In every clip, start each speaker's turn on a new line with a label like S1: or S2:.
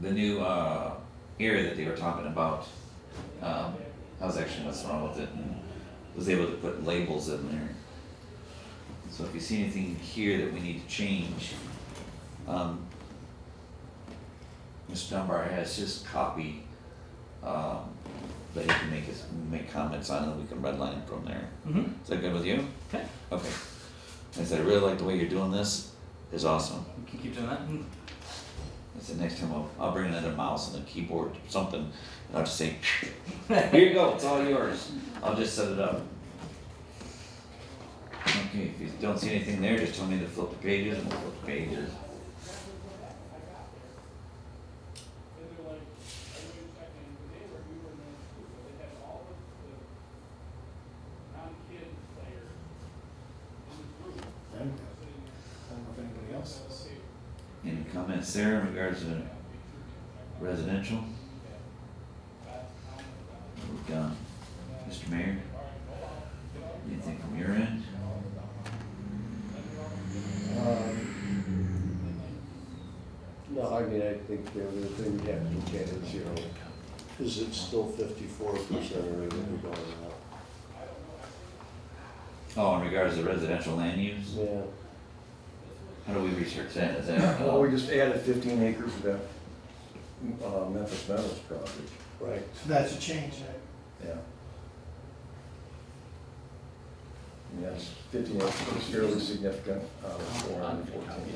S1: the new uh, area that they were talking about. Um, I was actually what's wrong with it and was able to put labels in there. So if you see anything here that we need to change, um, Mr. Dunbar has his copy um, that he can make his make comments on, and we can redline from there.
S2: Mm-hmm.
S1: Is that good with you?
S2: Okay.
S1: Okay. I said, I really like the way you're doing this. It's awesome.
S2: We can keep doing that. Mm.
S1: I said, next time I'll, I'll bring another mouse and a keyboard, something, and I'll just say, here you go, it's all yours. I'll just set it up. Okay, if you don't see anything there, just tell me to flip the pages and we'll flip the pages.
S3: I don't know if anybody else is.
S1: Any comments there in regards to residential? We've done. Mr. Mayor? Anything from your end?
S4: Um, No, I mean, I think the other thing we have to look at is, you know, is it still fifty-four percent or is it going up?
S1: Oh, in regards to residential land use,
S4: Yeah.
S1: how do we research that? Is that? uh,
S5: Well, we just added fifteen acres to that uh, Memphis Meadows project,
S4: Right.
S3: So that's a change, right?
S5: yeah. Yes, fifteen acres is fairly significant, uh, four hundred fourteen.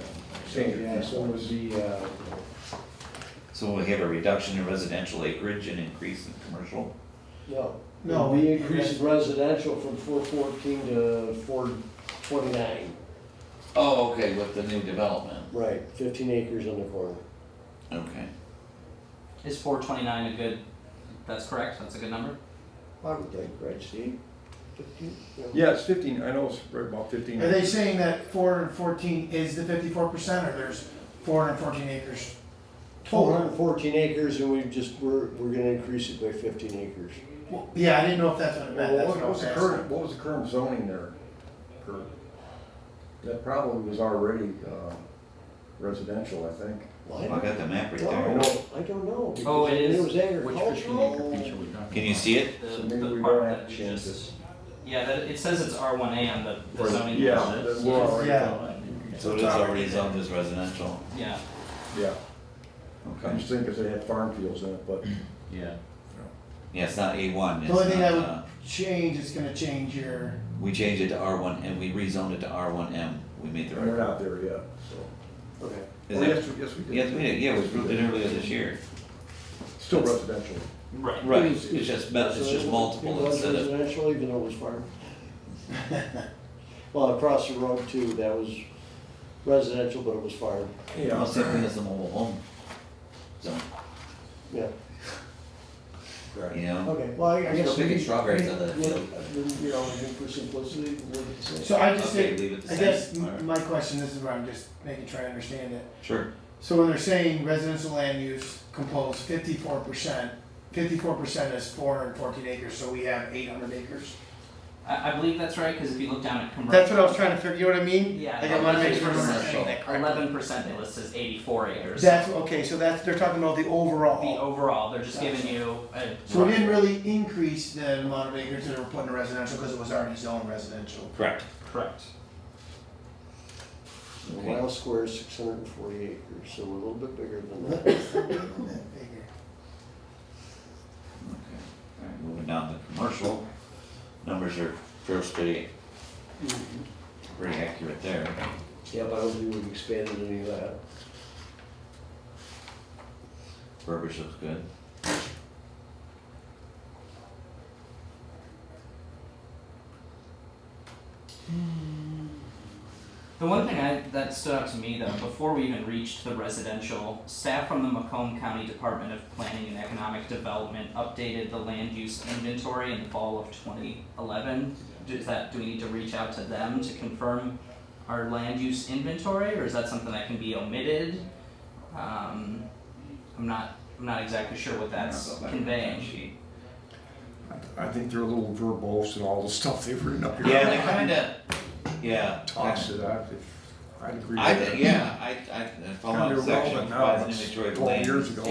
S5: Change of
S4: Yeah, so it would be, uh,
S1: So we have a reduction in residential acreage and increase in commercial?
S4: no.
S3: No,
S4: We
S3: it-
S4: increased residential from four fourteen to four twenty-nine.
S1: Oh, okay, with the new development.
S4: Right, fifteen acres in the corner.
S1: Okay.
S2: Is 429 a good? That's correct. That's a good number.
S4: I would think, right, Steve? 15?
S5: Yeah, it's fifteen, I know it's right about fifteen.
S3: Are they saying that four hundred and fourteen is the fifty-four percent, or there's four hundred and fourteen acres?
S4: Four hundred and fourteen acres and we just, we're, we're gonna increase it by fifteen acres.
S3: Well, Yeah, I didn't know if that's what it meant,
S5: Well,
S3: that's
S5: What
S3: what I
S5: what was
S3: was
S5: the
S3: asking.
S5: current, what was the current zoning there? Kurt? That probably was already uh, residential, I think.
S4: Well, I
S1: I
S4: don't-
S1: got the map right
S4: No, I
S1: there.
S4: don't- I don't
S2: Oh,
S4: know. because
S2: it
S4: I knew
S2: is.
S4: It was agricultural.
S1: Can you see it?
S2: The,
S5: So maybe
S2: the
S5: we
S2: part
S5: don't have
S2: that
S5: to
S2: you
S5: change
S2: just-
S5: this.
S2: Yeah, that, it says it's R1A on the, the
S5: Or-
S2: zoning.
S5: Yeah,
S2: ordinance.
S5: that we're already
S3: Yeah.
S5: done.
S1: So it is already zoned as residential.
S2: Yeah.
S5: Yeah, I
S1: Okay.
S5: just think if they had farm fields in it, but
S6: Yeah.
S1: Yeah, it's not A one.
S3: The only thing I
S1: uh,
S3: would change is gonna change your,
S1: We changed it to R one and we rezoned it to R one M. We made the
S5: we're
S1: right.
S5: not there yet, so.
S4: Okay.
S1: Is
S5: Oh,
S1: that-
S5: yes, we- yes, we did.
S1: Yes, we did. Yeah, it was grouped in earlier this year.
S5: Still residential.
S2: Right.
S1: Right, it's just, mul- it's
S4: So
S1: just
S4: it was-
S1: multiple instead
S4: It was
S1: of,
S4: residential, even though it was farm. Well, across the road too, that was residential, but it was farm,
S1: well, same thing as the mobile home zone,
S4: yeah.
S1: you know?
S4: Okay, well, I I
S1: Still
S4: guess.
S1: picking
S4: we-
S1: strawberries
S4: we-
S1: on that
S4: we-
S1: field.
S4: You know, I think for simplicity, we'll look at the same.
S3: so I just
S1: Okay,
S3: think,
S1: leave it the
S3: I
S1: same.
S3: guess
S1: All right.
S3: m- my question, this is where I'm just making, trying to understand it.
S1: Sure.
S3: So when they're saying residential land use compose fifty-four percent, fifty-four percent is four hundred and fourteen acres, so we have eight hundred acres?
S2: I, I believe that's right because if you look down at commercial.
S3: That's what I was trying to figure, you know what I mean?
S2: Yeah,
S3: Like, I wanna make sure I'm
S2: commercial.
S3: understanding that correctly.
S2: Eleven percent. It lists as eighty-four acres.
S3: That's, okay, so that's, they're talking about the
S2: the
S3: overall.
S2: overall. They're just giving you a.
S3: So we didn't really increase the amount of acres that were put in residential, cause it was already zoned residential.
S1: Correct.
S2: Correct.
S4: The Mile square is six hundred and forty acres, so we're a little bit bigger than that.
S1: Okay, all right, moving down to commercial, numbers are first pretty, pretty accurate there.
S4: Yeah, but I don't think we've expanded any of that.
S1: Burbage looks good.
S2: The one thing I, that stood out to me though, before we even reached the residential, staff from the Macomb County Department of Planning and Economic Development updated the land use inventory in the fall of twenty eleven. Is that, do we need to reach out to them to confirm our land use inventory, or is that something that can be omitted? Um, I'm not, I'm not exactly sure what
S1: I'll
S2: that's
S1: go back to the
S2: conveying.
S1: sheet.
S5: I think they're a little verbose and all the stuff they've written up here.
S1: Yeah, they kinda, yeah.
S5: Toss it out, if- I'd agree with
S1: I,
S5: that.
S1: think- yeah, I, I, I follow
S5: Kinda
S1: section,
S5: irrelevant now,
S1: provides an
S5: it's
S1: inventory of
S5: 12
S1: land.
S5: years ago.